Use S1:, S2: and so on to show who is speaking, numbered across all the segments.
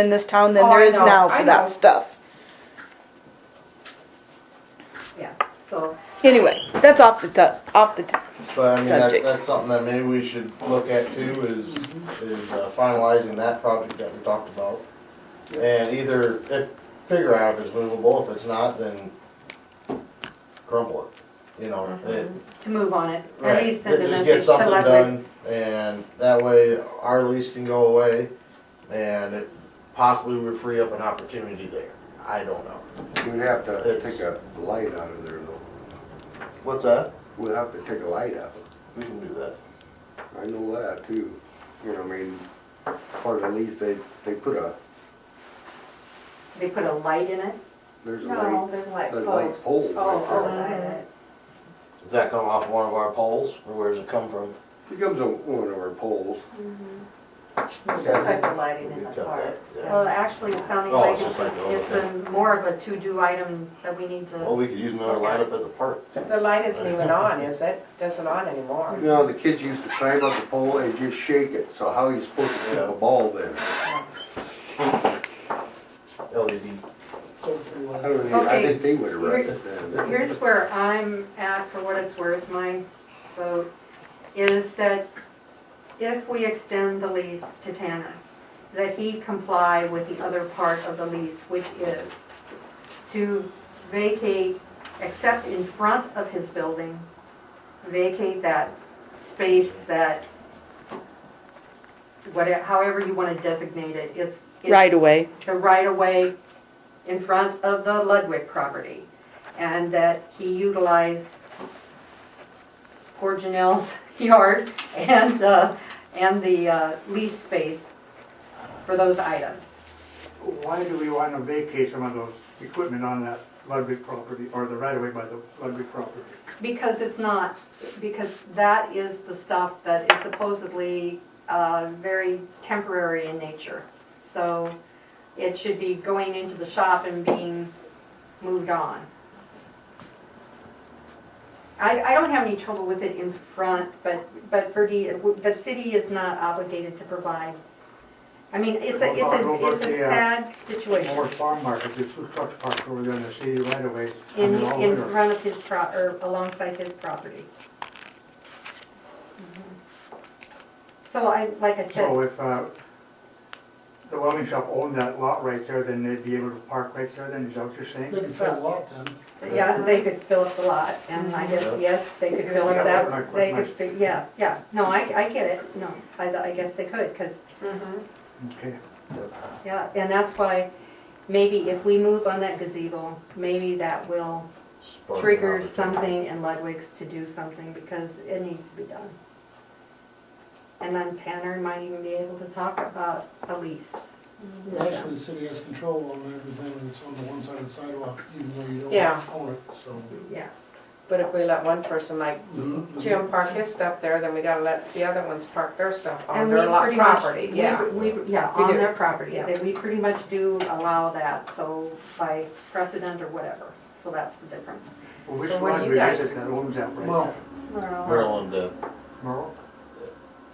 S1: in this town than
S2: Oh,
S1: there
S2: I
S1: is
S2: know,
S1: now
S2: I
S1: for
S2: know.
S1: that stuff.
S2: yeah, so.
S1: Anyway, that's off the, tu- off the, tu-
S3: But I mean, that,
S1: Subject.
S3: that's something that maybe we should look at too, is, is uh, finalizing that project that we talked about. And either, if, figure out if it's movable, if it's not, then crumble it, you know, it,
S2: To move on it, at
S3: right.
S2: least send a
S3: Just
S2: message
S3: get
S2: to
S3: something
S2: Ludwig's.
S3: done, and that way our lease can go away, and it possibly would free up an opportunity there, I don't know.
S4: We'd have to
S3: It's-
S4: take a light out of there though.
S3: What's that?
S4: We'll have to take a light out.
S3: We can do that.
S4: I know that too. You know, I mean, part of the lease, they, they put a,
S2: They put a light in it?
S4: there's a
S5: No,
S4: light.
S5: there's light
S4: there's light
S5: posts.
S4: poles
S2: Oh,
S4: right there.
S5: Outside it.
S3: Does that come off one of our poles, or where does it come from?
S4: It comes on one of our poles.
S5: It's just like the lighting in
S3: We
S5: the
S3: cut that,
S5: park.
S3: yeah.
S2: Well, actually, it's sounding
S3: Oh, Oh,
S2: like
S3: it's
S2: it's,
S3: just like the
S2: a-
S3: old
S2: it's a more of a to-do item that we need
S3: Well,
S2: to,
S3: we could use another light up at the park.
S6: The light isn't even on, is it? Doesn't on anymore.
S4: You know, the kids used to climb up the pole and just shake it, so how are you supposed to hit a ball then?
S3: LED.
S4: I don't think, I
S2: Okay.
S4: think they would have wrecked it then.
S2: here's where I'm at for what it's worth, my vote, is that if we extend the lease to Tanner, that he comply with the other part of the lease, which is to vacate, except in front of his building, vacate that space that, whatever, however you want to designate it, it's. it's-
S1: right away.
S2: the right-of-way in front of the Ludwig property, and that he utilize poor Janelle's yard and, uh, and the uh, lease space for those items.
S7: Why do we want to vacate some of those equipment on that Ludwig property, or the right-of-way by the Ludwig property?
S2: Because it's not, because that is the stuff that is supposedly uh, very temporary in nature. So it should be going into the shop and being moved on. I, I don't have any trouble with it in front, but, but Verdi, the city is not obligated to provide. I mean, it's a, it's
S7: What
S2: a,
S7: about
S2: it's a
S7: the, uh,
S2: sad
S7: Or
S2: situation
S7: farm market, there's two trucks parked over there on the city right-of-way.
S2: in,
S7: and they're all
S2: in
S7: there.
S2: front of his pro, or alongside his property. Mm-hmm. So I, like I
S7: So
S2: said,
S7: if uh, the welding shop owned that lot right there, then they'd be able to park right there then, is that what you're saying?
S8: They can fill a lot then.
S2: yeah, they could fill up the lot, and I guess, yes, they could fill
S7: Yeah,
S2: up
S7: that's my-
S2: that, they
S7: my-
S2: could, fi- yeah, yeah, no, I, I get it, no, I, I guess they could, because,
S7: Okay,
S2: yeah, and that's why, maybe if we move on that gazebo, maybe that will
S3: Spark an
S2: trigger
S3: opportunity.
S2: something in Ludwig's to do something, because it needs to be done. And then Tanner might even be able to talk about a lease. with them.
S8: Actually, the city has control on everything that's on the one side of the sidewalk, even though you
S6: Yeah.
S8: don't own it, so.
S2: Yeah,
S6: But if we let one person like
S8: Mhm.
S6: Jim park his stuff there, then we gotta let the other ones park their stuff on
S2: and we
S6: their lot
S2: pretty much.
S6: property,
S2: we-
S6: yeah.
S2: We, yeah,
S6: We
S2: on
S6: do.
S2: their property,
S6: Yeah.
S2: They- we pretty much do allow that, so by precedent or whatever, so that's the difference.
S7: well, which
S6: So what do you
S7: Ludwig is
S6: guys-
S7: it that owns that right
S8: Well,
S7: there?
S3: Maryland, uh,
S7: Merle?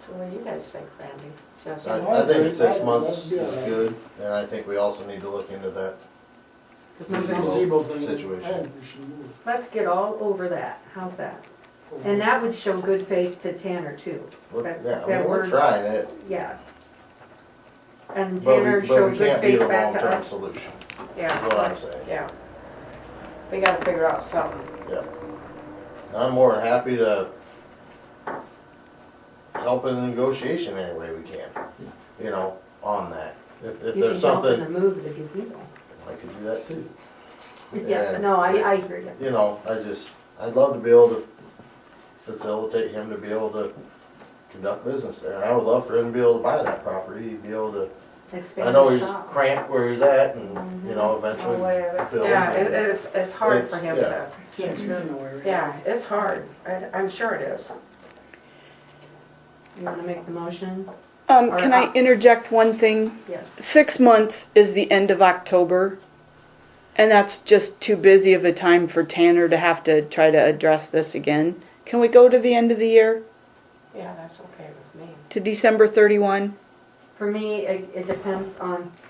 S6: So what do you guys think, Randy? Just-
S3: I, I think six months is good, and I think we also need to look into that.
S8: it's a
S3: Gazebo
S8: gazebo thing, I
S3: situation.
S8: think we should move.
S2: Let's get all over that, how's that?
S8: forward.
S2: And that would show good faith to Tanner too,
S3: We're-
S2: That-
S3: Yeah, I
S2: that
S3: mean, we're
S2: we're-
S3: trying it,
S2: yeah. And
S3: but
S2: Tanner
S3: we, but
S2: showed
S3: we
S2: good
S3: can't be
S2: faith
S3: the
S2: back to
S3: long-term
S2: us.
S3: solution, is what
S6: Yeah,
S3: I'm saying.
S6: yeah. We gotta figure out something.
S3: Yeah. And I'm more than happy to help in the negotiation any way we can, you know, on that. If, if
S2: You can
S3: there's
S2: help them to
S3: something,
S2: move the gazebo.
S3: I could do that too.
S2: Yeah,
S3: And-
S2: no, I, I agree.
S3: you know, I just, I'd love to be able to facilitate him to be able to conduct business there. I would love for him to be able to buy that property, be able to, I
S2: Expand
S3: know
S2: the
S3: he's
S2: shop.
S3: cramped where he's at and, you know, eventually.
S2: Aware of it.
S3: build
S6: Yeah, it,
S3: it.
S6: it's, it's hard for
S3: It's-
S6: him
S3: yeah.
S6: to,
S8: Can't expand no area.
S6: yeah, it's hard. I, I'm sure it is.
S2: You wanna make the motion?
S1: Um,
S2: Or
S1: can I
S2: not.
S1: interject one thing?
S2: Yes.
S1: Six months is the end of October. And that's just too busy of a time for Tanner to have to try to address this again. Can we go to the end of the year,
S6: Yeah, that's okay with me.
S1: to December thirty-one?
S2: For me, it, it depends on